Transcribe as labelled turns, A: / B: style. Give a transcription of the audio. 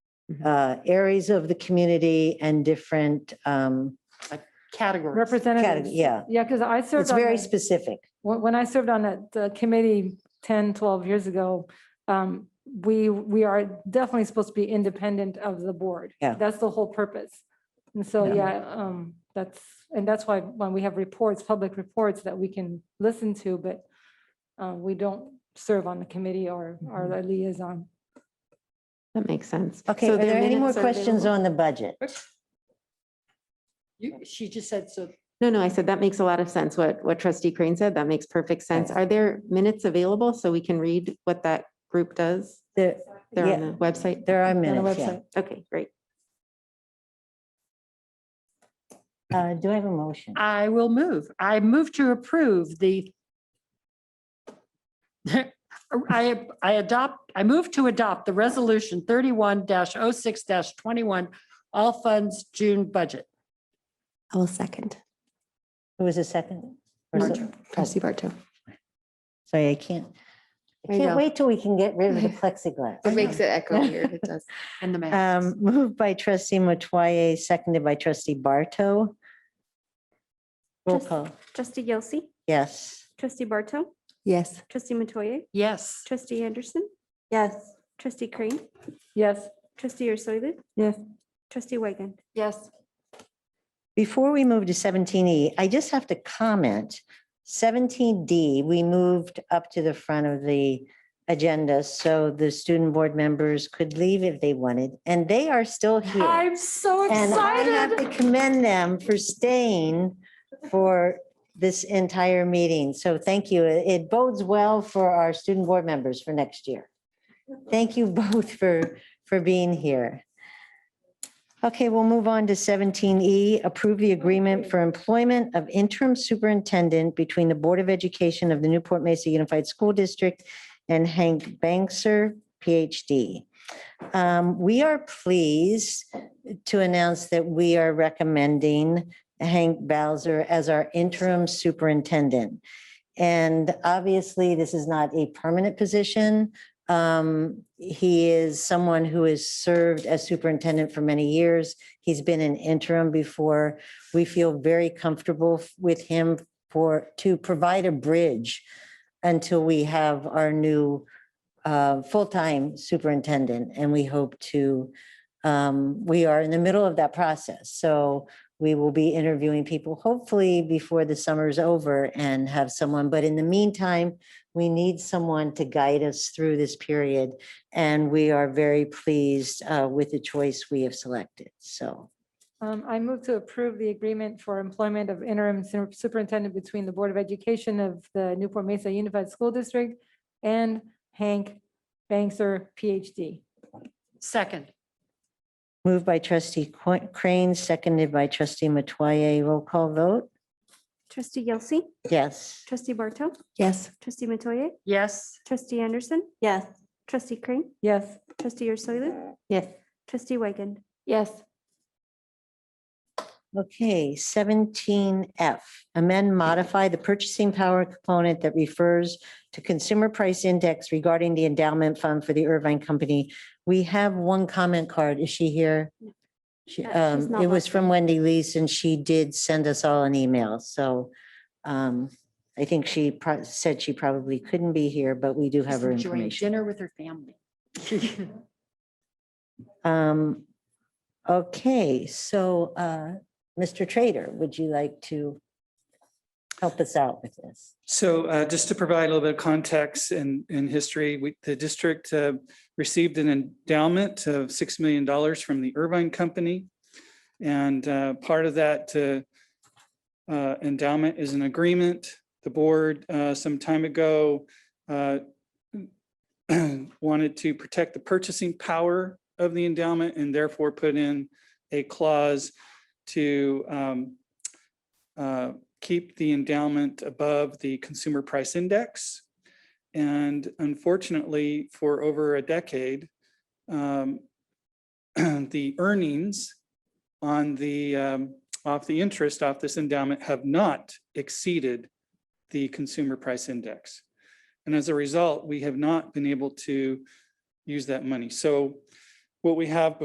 A: Mhm.
B: uh, areas of the community and different, um,
A: Categories.
B: cate-
C: Representatives.
B: yeah.
C: Yeah, because I served
B: It's
C: on,
B: very
C: that-
B: specific.
C: when when I served on that uh, committee 10, 12 years ago, um, we, we are definitely supposed to be independent of the board.
B: Yeah.
C: That's the whole purpose. And so,
A: Yeah.
C: yeah, um, that's, and that's why when we have reports, public reports that we can listen to, but uh, we don't serve on the committee or, or
B: Mm-hmm.
C: a liaison.
A: That makes sense.
B: Okay,
A: So
B: are
A: their
B: there any more
A: minutes are
B: questions
A: available-
B: on the budget?
D: You, she just said so.
A: No, no, I said that makes a lot of sense. What, what trustee Crane said, that makes perfect sense.
B: Right.
A: Are there minutes available so we can read what that group does?
B: There,
A: They're on
B: Yeah.
A: the website?
B: there are
C: on the
B: minutes, yeah.
C: website.
A: Okay, great.
B: Uh, do I have a motion?
D: I will move. I move to approve the. I, I adopt, I move to adopt the resolution thirty-one 6 twenty-one, all funds June budget.
E: I will second.
B: Who was the second? Or so-
E: Barto, Trustee Barto.
B: Sorry, I can't, I
E: I
B: can't
E: know.
B: wait till we can get rid of the plexiglass.
E: it echo
B: here.
E: It does.
D: And the math.
B: Um, moved by trustee Matoye, seconded by trustee Barto. Roll
F: Trust-
B: call,
F: Trustee Yelsey,
B: yes.
F: trustee Barto,
E: Yes.
F: trustee Matoye,
D: Yes.
F: trustee Anderson,
E: Yes.
F: trustee Crane,
C: Yes.
F: trustee Ursulou.
C: Yes.
F: Trustee Wagen.
E: Yes.
B: Before we move to seventeen E, I just have to comment. Seventeen D, we moved up to the front of the agenda so the student board members could leave if they wanted, and they are still here.
D: so
B: And I have to commend them for staying for this entire meeting. So thank you. It it bodes well for our student board members for next year. Thank you both for, for being here. Okay, we'll move on to seventeen E, approve the agreement for employment of interim superintendent between the Board of Education of the Newport Mesa Unified School District and Hank Bankser, PhD. Um, We are pleased to announce that we are recommending Hank Bowser as our interim superintendent. And obviously, this is not a permanent position. Um, He is someone who has served as superintendent for many years. He's been an interim before. We feel very comfortable with him for, to provide a bridge until we have our new uh, full-time superintendent. And we hope to um, we are in the middle of that process. So we will be interviewing people hopefully before the summer's over and have someone. But in the meantime, we need someone to guide us through this period. And we are very pleased uh, with the choice we have selected. So
C: Um, I move to approve the agreement for employment of interim su- superintendent between the Board of Education of the Newport Mesa Unified School District and Hank Bankser, PhD.
D: Second,
B: moved by trustee Qu- Crane, seconded by trustee Matoye. Roll call vote.
F: Trustee Yelsey,
B: Yes.
F: trustee Barto,
E: Yes.
F: trustee Matoye,
D: yes.
F: trustee Anderson. Yes. Trustee Crane,
C: Yes.
F: trustee Ursulou,
A: Yes.
F: trustee Wagen.
C: Yes.
B: Okay, seventeen F, amend, modify the purchasing power component that refers to consumer price index regarding the endowment fund for the Irvine Company. We have one comment card. Is she here? She,
F: Uh, she's
B: um,
F: not
B: it was
F: listed.
B: from Wendy Lees and she did send us all an email, so um, I think she pro- said she probably couldn't be here, but we do have her
D: Enjoying
B: information.
D: Dinner with her family.
B: Um, okay, so, uh, Mr. Trader, would you like to help us out with this?
G: So uh, just to provide a little bit of context and, and history, we, the district uh, received an endowment of $6 million from the Irvine Company. And uh, part of that uh, uh, endowment is an agreement. The board uh, some time ago uh, wanted to protect the purchasing power of the endowment and therefore put in a clause to um, uh, keep the endowment above the consumer price index. And unfortunately, for over a decade, um, the earnings on the, um, off the interest off this endowment have not exceeded the consumer price index. And as a result, we have not been able to use that money. So what we have